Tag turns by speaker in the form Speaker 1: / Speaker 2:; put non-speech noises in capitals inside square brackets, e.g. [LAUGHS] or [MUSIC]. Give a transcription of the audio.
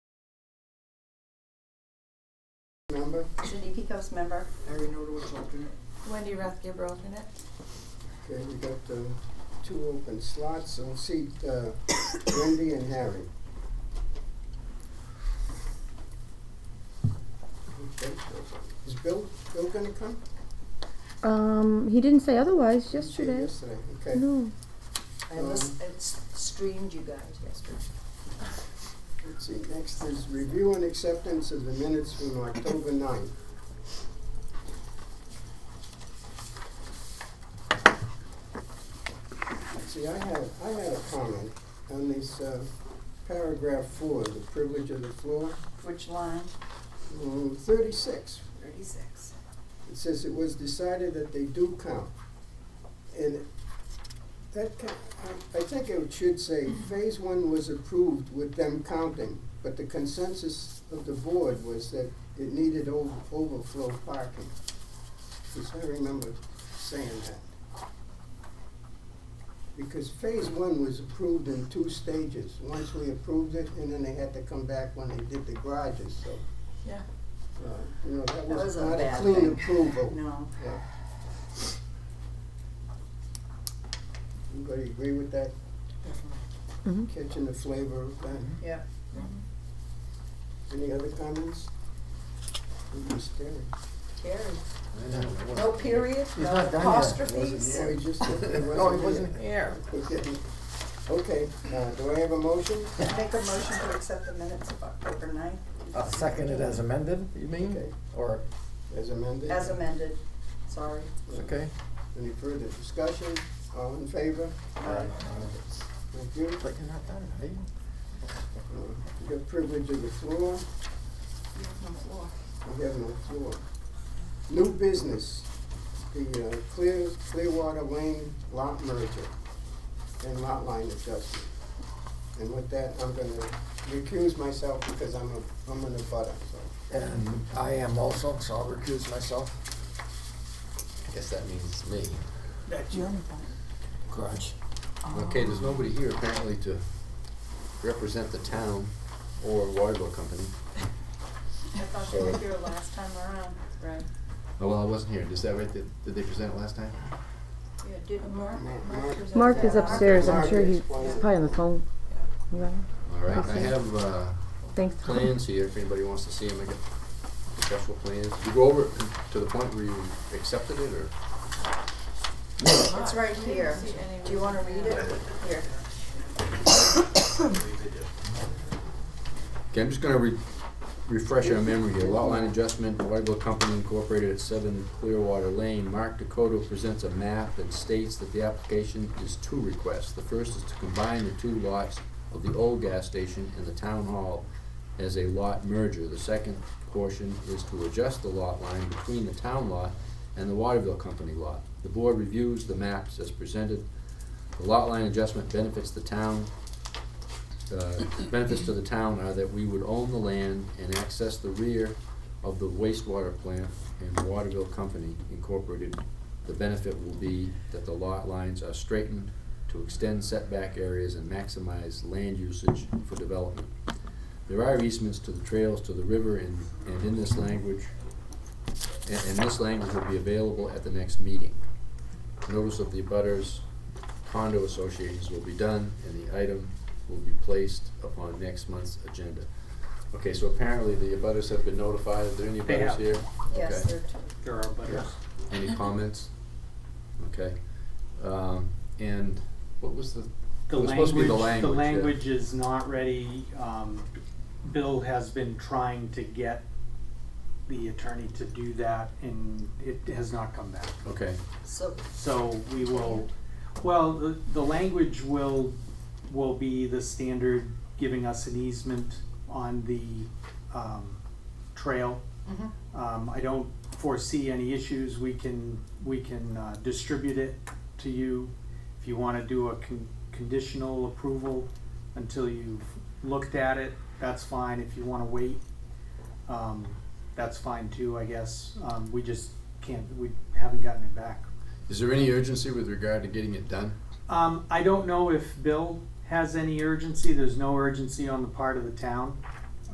Speaker 1: member,
Speaker 2: Judy Picos member,
Speaker 1: Harry Nodowitz alternate.
Speaker 3: Wendy Rathgeber alternate.
Speaker 1: Okay, we got uh, two open slots, so we'll see uh, Wendy and Harry. Okay, so Is Bill, Bill gonna come?
Speaker 4: Um, he didn't say otherwise yesterday.
Speaker 1: Yesterday, okay.
Speaker 4: No.
Speaker 3: I lis- I s- streamed you guys yesterday.
Speaker 1: Let's see, next is review and acceptance of the minutes from October ninth. See, I had, I had a comment on this, uh, paragraph four, the privilege of the floor,
Speaker 2: which line?
Speaker 1: mm, thirty-six.
Speaker 2: Thirty-six.
Speaker 1: It says it was decided that they do count. And that, ca- I I think it should say, phase one was approved with them counting, but the consensus of the board was that it needed over, overflow parking. Because I remember saying that. Because phase one was approved in two stages. Once we approved it, and then they had to come back when they did the garages, so.
Speaker 3: Yeah.
Speaker 1: uh, You know, that
Speaker 2: That
Speaker 1: was
Speaker 2: was a
Speaker 1: not a
Speaker 2: bad
Speaker 1: clean
Speaker 2: thing.
Speaker 1: approval.
Speaker 2: [LAUGHS] No,
Speaker 1: Yeah. Anybody agree with that,
Speaker 3: Definitely.
Speaker 4: Mm-hmm.
Speaker 1: catching the flavor of that?
Speaker 2: yeah.
Speaker 1: Any other comments? Who's staring? [LAUGHS]
Speaker 3: Terry.
Speaker 5: I know, it wasn't-
Speaker 3: No period,
Speaker 5: He's
Speaker 3: no
Speaker 5: not done yet. It wasn't
Speaker 3: apostrophes.
Speaker 1: Oh,
Speaker 5: yet.
Speaker 1: he just, it
Speaker 5: No, he wasn't
Speaker 1: wasn't
Speaker 5: here.
Speaker 1: here. Okay, uh, do I have a motion?
Speaker 2: I Make a motion to accept the minutes of October ninth
Speaker 5: I'll second it Uh, as amended, you
Speaker 1: Okay.
Speaker 5: mean? Or,
Speaker 1: As amended?
Speaker 2: as amended, sorry.
Speaker 5: it's okay?
Speaker 1: Any further discussion? All in favor?
Speaker 5: Uh,
Speaker 1: Thank you.
Speaker 5: But you're not done, are you?
Speaker 1: Uh, You have privilege of the floor.
Speaker 2: You have no floor.
Speaker 1: We have no floor. New business, the uh, Clear, Clearwater Lane lot merger and lot line adjustment. And with that, I'm gonna recuse myself because I'm a, I'm an abutter, so.
Speaker 5: And I am also, so I'll recuse myself. I guess that means me.
Speaker 1: That's
Speaker 5: Grudge.
Speaker 6: Okay, there's nobody here apparently to represent the town or Waterville Company.
Speaker 2: I thought you were here last time around, right?
Speaker 6: Oh, well, I wasn't here. Is that right? Did, did they present last time?
Speaker 2: Yeah, did Mark?
Speaker 1: Mark-
Speaker 2: was
Speaker 4: Mark
Speaker 2: upstairs.
Speaker 4: is upstairs. I'm sure he's,
Speaker 1: Mark is-
Speaker 4: he's probably on the phone. Yeah.
Speaker 6: All right, I
Speaker 4: Okay.
Speaker 6: have, uh,
Speaker 4: Thanks.
Speaker 6: plans here, if anybody wants to see them, I got special plans. Did you go over it to the point where you accepted it or?
Speaker 2: It's right here. Do you wanna read it? Here.
Speaker 6: Okay, I'm just gonna re- refresh our memory here. Lot line adjustment, Whiteville Company Incorporated at seven Clearwater Lane. Mark Dakota presents a map that states that the application is two requests. The first is to combine the two lots of the old gas station and the town hall as a lot merger. The second portion is to adjust the lot line between the town lot and the Waterville Company lot. The board reviews the maps as presented. The lot line adjustment benefits the town uh, benefits to the town are that we would own the land and access the rear of the wastewater plant and Waterville Company Incorporated. The benefit will be that the lot lines are straightened to extend setback areas and maximize land usage for development. There are easements to the trails to the river and, and in this language, and, and this language will be available at the next meeting. Notice of the abutters, condo associations will be done, and the item will be placed upon next month's agenda. Okay, so apparently the abutters have been notified, are there any
Speaker 7: They
Speaker 6: abutters
Speaker 7: have.
Speaker 6: here?
Speaker 2: Yes,
Speaker 6: Okay.
Speaker 2: there are two.
Speaker 7: There are butters.
Speaker 6: Any comments? Okay, um, and what was the,
Speaker 7: The
Speaker 6: It was supposed to be
Speaker 7: language,
Speaker 6: the
Speaker 7: the
Speaker 6: language, yeah.
Speaker 7: language is not ready. Um, Bill has been trying to get the attorney to do that and it has not come back.
Speaker 6: okay,
Speaker 3: So,
Speaker 7: So we will, well, the, the language will, will be the standard giving us an easement on the, um, trail.
Speaker 2: Mhm.
Speaker 7: Um, I don't foresee any issues. We can, we can, uh, distribute it to you. If you wanna do a con- conditional approval until you've looked at it, that's fine. If you wanna wait, um, that's fine too, I guess. Um, we just can't, we haven't gotten it back.
Speaker 6: is there any urgency with regard to getting it done?
Speaker 7: Um, I don't know if Bill has any urgency. There's no urgency on the part of the town.